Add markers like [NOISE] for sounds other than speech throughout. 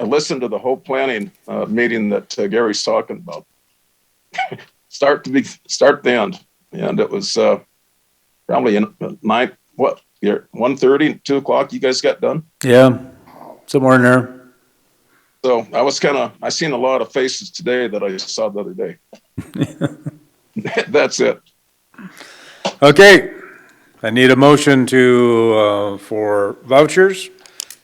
I listened to the whole planning uh, meeting that uh, Gary's talking about. [LAUGHS] start to be start to end, and it was uh, probably in uh, nine what year one thirty two o'clock. You guys got done, Yeah, somewhere in there. so I was kind of I seen a lot of faces today that I saw the other [LAUGHS] day. That's it. Okay, I need a motion to, uh, for vouchers.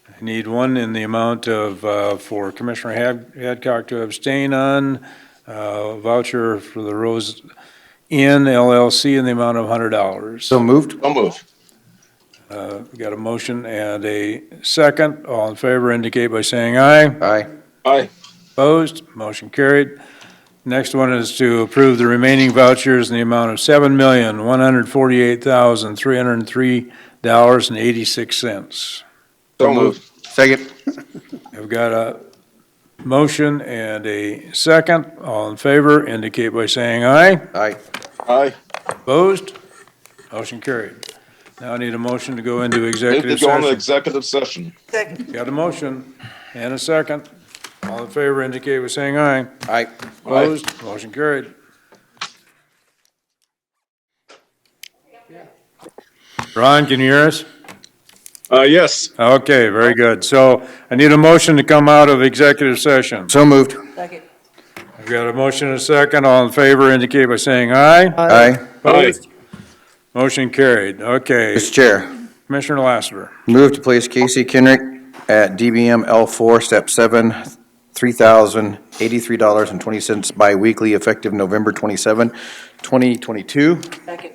I need one in the amount of, uh, for Commissioner Had- Hadcock to abstain on, uh, voucher for the Rose Inn LLC in the amount of hundred dollars. So moved? Don't move. Uh, we got a motion and a second. All in favor indicate by saying aye. Aye. Aye. Opposed, motion carried. Next one is to approve the remaining vouchers in the amount of seven million, one hundred forty-eight thousand, three hundred and three dollars and eighty-six cents. Don't move. Second? I've got a motion and a second. All in favor indicate by saying aye. Aye. Aye. Opposed, motion carried. Now I need a motion to go into Need to executive go on the session. executive session. Second. Got a motion and a second. All in favor indicate by saying aye. Aye. Aye. Opposed, motion carried. Ron, can you hear us? Uh, yes. Okay, very good. So I need a motion to come out of executive session. So moved? Second. I've got a motion and a second. All in favor indicate by saying aye. Aye. Opposed? Motion carried. Okay, Mr. Chair, Commissioner Lassiter. move to place Casey Kendrick at DBM L4, Step 7, $3,083.20 biweekly effective November 27, 2022. Second.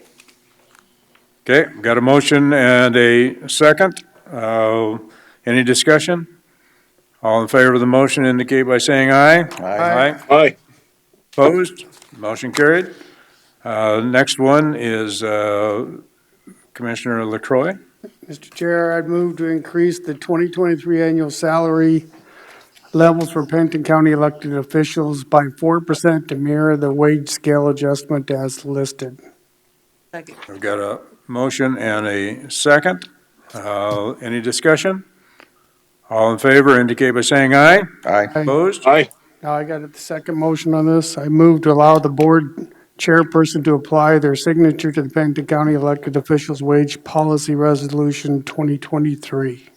Okay, got a motion and a second. Uh, Any discussion? All in favor of the motion indicate by saying aye. Aye. Aye. Opposed? Motion carried. Uh, Next one is uh, Commissioner LaCroy. Mr. Chair, I'd move to increase the 2023 annual salary levels for Pennington County elected officials by 4% to mirror the wage scale adjustment as listed. Second. I've got a motion and a second. Uh, Any discussion? All in favor indicate by saying aye. Aye. Opposed? Aye. Now, I got the second motion on this. I move to allow the board chairperson to apply their signature to the Pennington County elected officials' wage policy resolution 2023.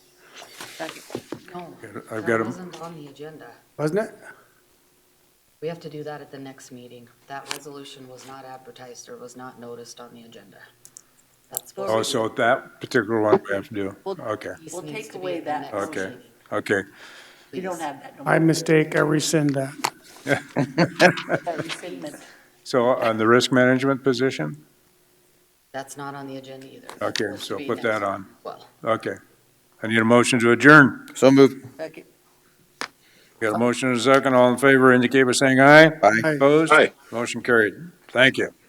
Second. No, I've got that a, wasn't on the agenda. Wasn't it? We have to do that at the next meeting. That resolution was not advertised or was not noticed on the agenda. That's what. oh, so that particular one we have to do. Okay, This We'll needs take to be away at the that next Okay. meeting, okay. You don't please. have that. no more. I mistake, I rescind that. That rescindment. So on the risk management position? That's not on the agenda either. That's Okay, supposed to so be put next that week. on. Well, Okay. I need a motion to adjourn. So moved? Second. Got a motion and a second. All in favor indicate by saying aye. Aye. Opposed? Aye. Motion carried. Thank you.